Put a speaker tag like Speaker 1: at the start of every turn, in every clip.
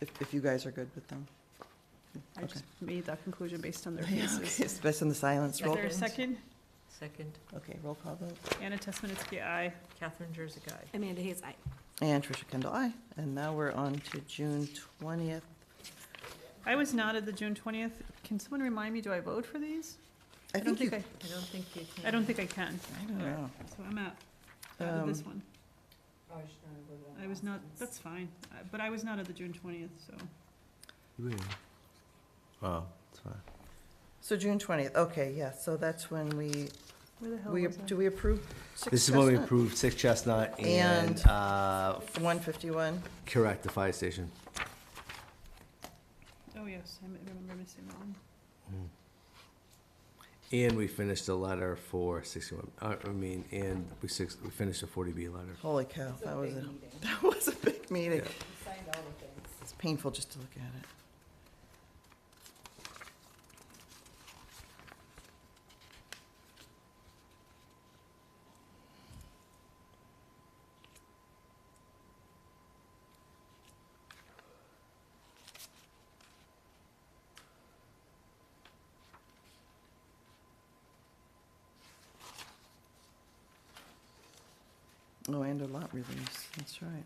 Speaker 1: if, if you guys are good with them.
Speaker 2: I
Speaker 1: Okay.
Speaker 2: just made that conclusion based on their
Speaker 1: Yeah, okay,
Speaker 2: faces.
Speaker 1: it's Based on the silence,
Speaker 2: Is
Speaker 1: roll.
Speaker 2: there a second?
Speaker 3: Second,
Speaker 1: Okay, roll call vote.
Speaker 2: Anna Tesmanitsky, aye.
Speaker 3: Catherine Jersey Guy.
Speaker 4: Amanda Hayes, aye.
Speaker 1: And Tricia Kendall, aye. And now we're on to June twentieth.
Speaker 2: I was not at the June twentieth. Can someone remind me, do I vote for these?
Speaker 1: I
Speaker 2: don't
Speaker 1: think you,
Speaker 2: think I,
Speaker 3: I don't think you can.
Speaker 2: I don't think I can,
Speaker 1: I don't know.
Speaker 2: so I'm out, out of this
Speaker 1: Um,
Speaker 2: one. I was not, that's fine, Uh, but I was not at the June twentieth, so.
Speaker 5: Oh, it's fine.
Speaker 1: So June twentieth, okay, yeah, so that's when we,
Speaker 2: Where the hell
Speaker 1: we,
Speaker 2: was I?
Speaker 1: do we approve? Six
Speaker 5: This is when we
Speaker 1: Chestnut?
Speaker 5: approved Six Chestnut and,
Speaker 1: And-
Speaker 5: uh,
Speaker 1: One fifty-one.
Speaker 5: correct, the fire station.
Speaker 2: Oh, yes, I m- remember missing that one.
Speaker 5: Mm. And we finished the letter for sixty-one, uh, I mean, and we six, we finished the forty B letter.
Speaker 1: Holy cow, that was a, that was a big meeting.
Speaker 5: Yeah.
Speaker 1: It's painful just to look at it. Oh, and a lot release, that's right.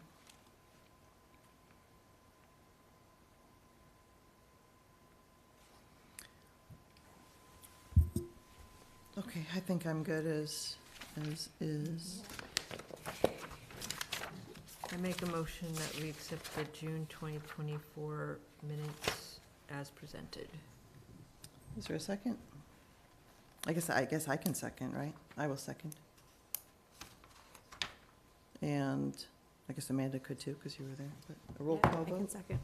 Speaker 1: Okay, I think I'm good as, as is.
Speaker 3: I make a motion that we accept the June 2024 minutes as presented.
Speaker 1: Is there a second? I guess, I guess I can second, right? I will second. And I guess Amanda could too, because you were there, but a roll
Speaker 4: Yeah,
Speaker 1: call
Speaker 4: I can
Speaker 1: vote.
Speaker 4: second.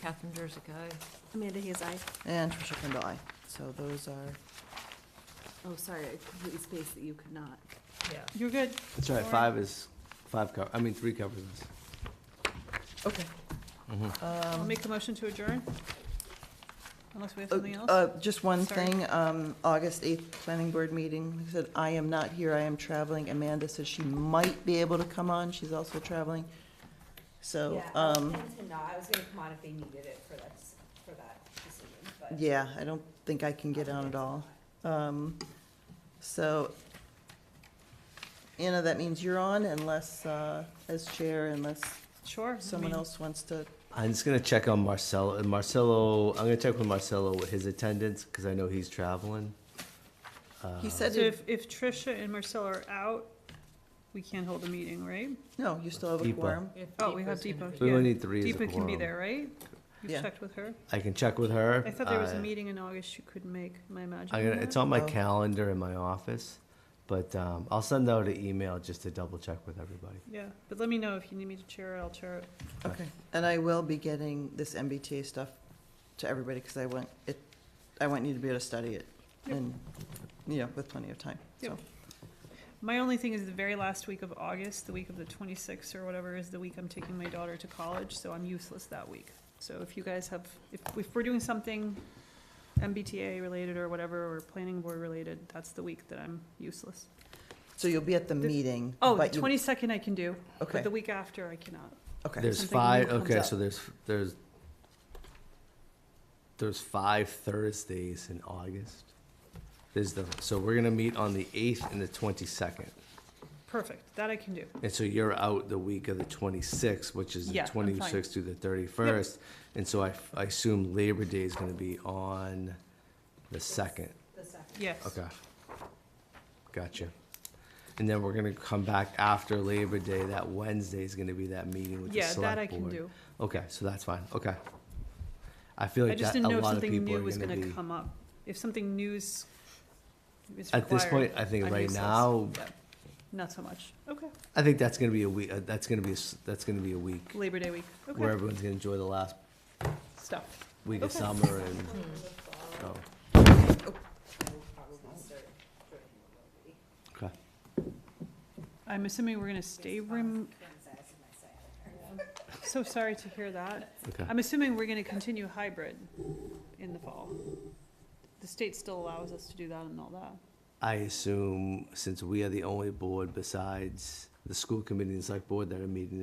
Speaker 3: Catherine Jersey Guy.
Speaker 4: Amanda Hayes, aye.
Speaker 1: And Tricia Kendall, aye. So those are,
Speaker 4: Oh, sorry, I completely spaced that you could not.
Speaker 3: Yeah.
Speaker 2: You're good.
Speaker 5: That's right,
Speaker 2: Sorry.
Speaker 5: five is, five cover, I mean, three covers us.
Speaker 1: okay. Um,
Speaker 2: I'll make a motion to adjourn. Unless we have
Speaker 1: Uh,
Speaker 2: something else.
Speaker 1: uh, Just one
Speaker 2: Sorry.
Speaker 1: thing, um, August 8th, planning board meeting, Like I said, I am not here, I am traveling. Amanda says she might be able to come on, she's also traveling. So,
Speaker 6: Yeah, I was
Speaker 1: um,
Speaker 6: planning to not, I was gonna come on if they needed it for that, s- for that decision, but.
Speaker 1: yeah, I don't think I can get on at all. Um, So, Anna, that means you're on unless, uh, as chair, unless
Speaker 2: Sure. I
Speaker 1: someone
Speaker 2: mean,
Speaker 1: else wants to,
Speaker 5: I'm just gonna check on Marcelo, and Marcelo, I'm gonna check with Marcelo with his attendance, cause I know he's traveling.
Speaker 1: he
Speaker 2: So
Speaker 1: said, he-
Speaker 2: if, if Tricia and Marcella are out, we can't hold a meeting, right?
Speaker 1: no, you still have a
Speaker 5: Deepa.
Speaker 1: quorum.
Speaker 3: If
Speaker 2: Oh, we have
Speaker 3: Deepa's
Speaker 2: Deepa.
Speaker 3: gonna
Speaker 5: We
Speaker 3: be-
Speaker 2: Yeah.
Speaker 5: only need three as a
Speaker 2: Deepa can be
Speaker 5: quorum.
Speaker 2: there, right?
Speaker 1: Yeah.
Speaker 2: You've checked with her?
Speaker 5: I can check with her.
Speaker 2: I thought there was a
Speaker 5: uh,
Speaker 2: meeting in August you could make, am I imagining
Speaker 5: I gotta,
Speaker 2: that?
Speaker 5: it's on my
Speaker 1: Oh.
Speaker 5: calendar in my office, but um, I'll send out an email just to double check with everybody.
Speaker 2: Yeah, but let me know if you need me to chair it, I'll chair it.
Speaker 1: Okay, and I will be getting this MBTA stuff to everybody, because I want it, I want you to be able to study it,
Speaker 2: Yep.
Speaker 1: and, you know, with plenty of time, so.
Speaker 2: Yep. My only thing is the very last week of August, the week of the twenty-sixth or whatever, is the week I'm taking my daughter to college, so I'm useless that week. So if you guys have, if, if we're doing something MBTA related or whatever, or planning board related, that's the week that I'm useless.
Speaker 1: So you'll be at the
Speaker 2: The-
Speaker 1: meeting.
Speaker 2: Oh, the
Speaker 1: but you-
Speaker 2: twenty-second I can do, but
Speaker 1: Okay,
Speaker 2: the week after I cannot.
Speaker 1: okay,
Speaker 5: There's
Speaker 2: Something
Speaker 5: five.
Speaker 2: new comes
Speaker 5: Okay,
Speaker 2: up.
Speaker 5: so there's there's there's five Thursdays in August. There's the so we're gonna meet on the eighth and the twenty second,
Speaker 2: Perfect, that I can do.
Speaker 5: and so you're out the week of the twenty sixth, which is the
Speaker 2: Yeah, I'm fine.
Speaker 5: twenty sixth through the thirty first, and so I, I assume Labor Day is gonna be on the second.
Speaker 6: The second.
Speaker 2: Yes.
Speaker 5: Okay. Gotcha. And then we're gonna come back after Labor Day, that Wednesday is gonna be that meeting with the
Speaker 2: Yeah,
Speaker 5: select board.
Speaker 2: that I can do.
Speaker 5: Okay, so that's fine, okay. I feel
Speaker 2: I
Speaker 5: like
Speaker 2: just
Speaker 5: that, a
Speaker 2: didn't know if
Speaker 5: lot of
Speaker 2: something
Speaker 5: people
Speaker 2: new
Speaker 5: are
Speaker 2: was
Speaker 5: gonna
Speaker 2: gonna
Speaker 5: be.
Speaker 2: come up. If something news is required.
Speaker 5: At this point, I think
Speaker 2: I'm
Speaker 5: right
Speaker 2: useless.
Speaker 5: now,
Speaker 2: Yeah. Not so much. Okay,
Speaker 5: I think that's gonna be a week, that's gonna be, a s- that's gonna be a week
Speaker 2: Labor Day week.
Speaker 5: where
Speaker 2: Okay,
Speaker 5: everyone's gonna enjoy the last
Speaker 2: stuff.
Speaker 5: week of
Speaker 2: Okay.
Speaker 5: summer and, oh, okay.
Speaker 2: I'm assuming we're gonna stay rem- so sorry to hear that.
Speaker 5: Okay.
Speaker 2: I'm assuming we're gonna continue hybrid in the fall. The state still allows us to do that and all that.
Speaker 5: I assume since we are the only board besides the school committee and select board that are meeting